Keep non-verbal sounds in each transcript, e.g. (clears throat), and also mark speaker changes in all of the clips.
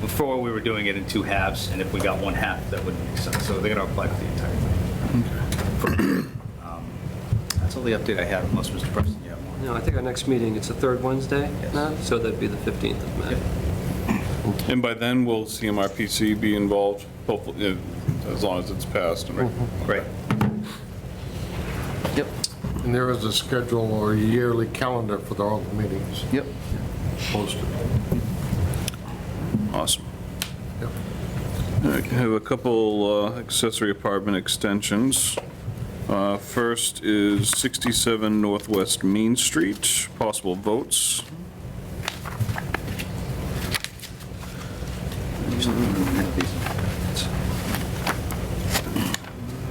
Speaker 1: Before, we were doing it in two halves, and if we got one half, that wouldn't make sense. So they're going to apply for the entire thing. Um, That's all the update I have, unless Mr. Preston, you have more.
Speaker 2: No, I think our next meeting, it's the third Wednesday
Speaker 1: Yes.
Speaker 2: now, so that'd be the 15th of May.
Speaker 3: And by then, will CMRPC be involved, hopefully, eh, as long as it's passed? Mm-hmm. and-
Speaker 1: Right.
Speaker 4: Yep,
Speaker 5: And there is a schedule or yearly calendar for all the meetings
Speaker 4: yep.
Speaker 5: posted.
Speaker 3: Awesome.
Speaker 5: Yep.
Speaker 3: All right, I have a couple uh, accessory apartment extensions. Uh, First is 67 Northwest Main Street, possible votes.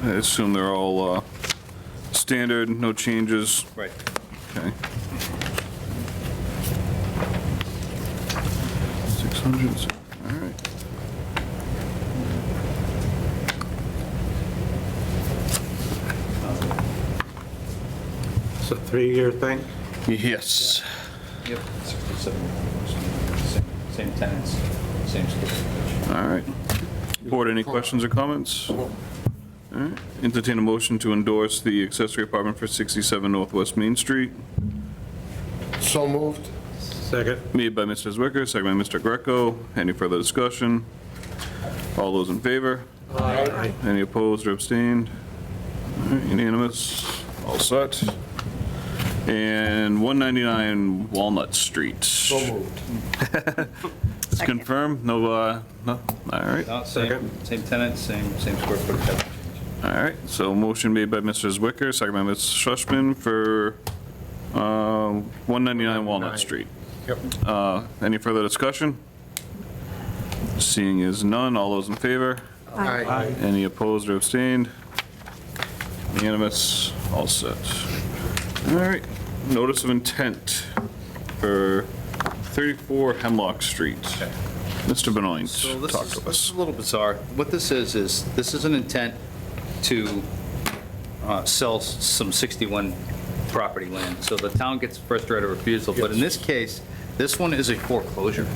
Speaker 3: I assume they're all uh, standard, no changes.
Speaker 1: Right.
Speaker 3: Okay. 600, all right.
Speaker 6: It's a three-year thing?
Speaker 3: Yes.
Speaker 1: Yep. 67. Same- Same tenants, same school.
Speaker 3: All right. Board, any questions or comments? All right. Entertain a motion to endorse the accessory apartment for 67 Northwest Main Street,
Speaker 5: So moved?
Speaker 6: Second?
Speaker 3: made by Mr. Zwicker, second by Mr. Greco. Any further discussion? All those in favor?
Speaker 6: Aye.
Speaker 3: Any opposed or abstained? All right, Unanimous, all set. And 199 Walnut Street.
Speaker 5: So moved.
Speaker 3: It's confirmed, no, uh, no, all right.
Speaker 1: No, Uh, Same, same tenants, same, same square footage.
Speaker 3: All right, so motion made by Mr. Zwicker, second by Ms. Schlesman for uh, 199 Walnut Street.
Speaker 5: Yep.
Speaker 3: Uh, Any further discussion? Seeing is none, all those in favor?
Speaker 5: Aye.
Speaker 3: Any opposed or abstained? Unanimous, all set. All right, notice of intent for 34 Hemlock Street. Mr. Benoit,
Speaker 1: So this
Speaker 3: talk
Speaker 1: is,
Speaker 3: to
Speaker 1: this is
Speaker 3: us.
Speaker 1: a little bizarre. What this is, is this is an intent to uh, sell s- some 61 property land. So the town gets first right of refusal, but in this case, this one is a foreclosure.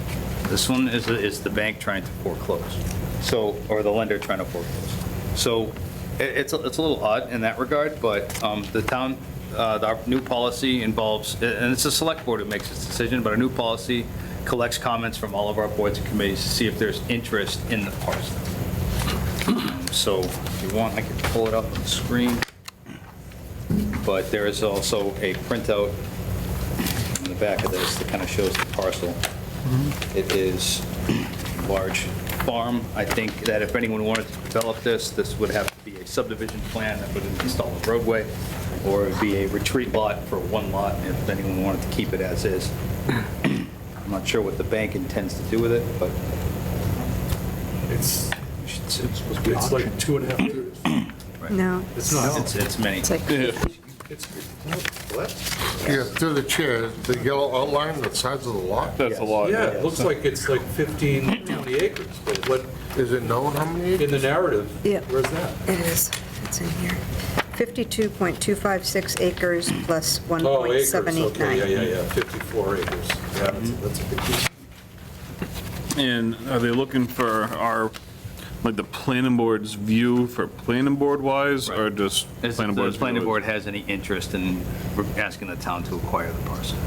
Speaker 1: This one is, is the bank trying to foreclose, so, or the lender trying to foreclose. So i- it's, a- it's a little odd in that regard, but um, the town, uh, our new policy involves, and it's the select board who makes this decision, but our new policy collects comments from all of our boards and committees to see if there's interest in the parcel. So if you want, I can pull it up on the screen. But there is also a printout in the back of this that kind of shows the parcel. It is large farm. I think that if anyone wanted to develop this, this would have to be a subdivision plan that would install a roadway, or it'd be a retreat lot for one lot if anyone wanted to keep it as is. I'm not sure what the bank intends to do with it, but
Speaker 6: It's,
Speaker 1: we should see.
Speaker 6: it's like two and a half years.
Speaker 7: No.
Speaker 6: It's not,
Speaker 1: It's- it's many.
Speaker 7: It's like,
Speaker 6: it's, what?
Speaker 5: Yeah, through the chair, the yellow outline, the size of the lot,
Speaker 3: That's a lot.
Speaker 6: Yeah, it looks like it's like 15, 20 acres, but what,
Speaker 5: is it known how many?
Speaker 6: in the narrative,
Speaker 7: Yeah.
Speaker 6: where's that?
Speaker 7: it is, it's in here. 52.256 acres plus
Speaker 6: Oh, acres, okay, yeah,
Speaker 7: 1.789.
Speaker 6: yeah, yeah, 54 acres. Yeah, that's a- that's a big piece.
Speaker 3: And are they looking for our, like, the planning board's view for planning board wise, or just?
Speaker 1: Is
Speaker 3: planning
Speaker 1: the
Speaker 3: board's
Speaker 1: planning
Speaker 3: view?
Speaker 1: board has any interest in asking the town to acquire the parcel?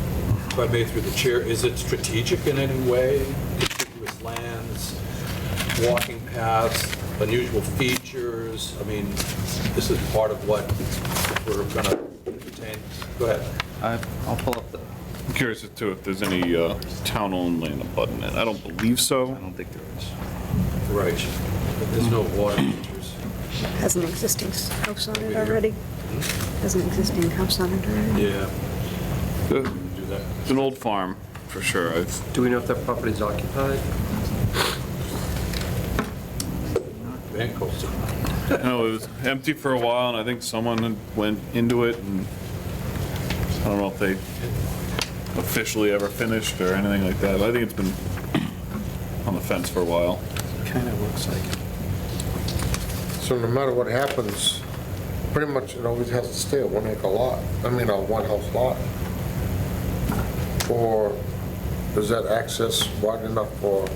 Speaker 6: If I may through the chair, is it strategic in any way? Contiguous lands, walking paths, unusual features? I mean, this is part of what we're going to entertain. Go ahead.
Speaker 1: I- I'll pull up the,
Speaker 3: I'm curious as to if there's any uh, town-owned land abutting it. I don't believe
Speaker 1: I
Speaker 3: so.
Speaker 1: don't think there is.
Speaker 6: Right. But There's no water features.
Speaker 7: Has an existing s- house on it already. Has an existing house on it already.
Speaker 6: Yeah.
Speaker 3: Uh,
Speaker 6: Do that.
Speaker 3: It's an old farm, for sure. I've-
Speaker 2: Do we know if that property's occupied?
Speaker 6: Van Coast.
Speaker 3: I (laughs) know it was empty for a while, and I think someone had went into it, and I don't know if they officially ever finished or anything like that. but I think it's been (clears throat) on the fence for a while.
Speaker 1: Kind of looks like it.
Speaker 5: So no matter what happens, pretty much it always has to stay a one acre lot, I mean, a one house lot. Or is that access wide enough for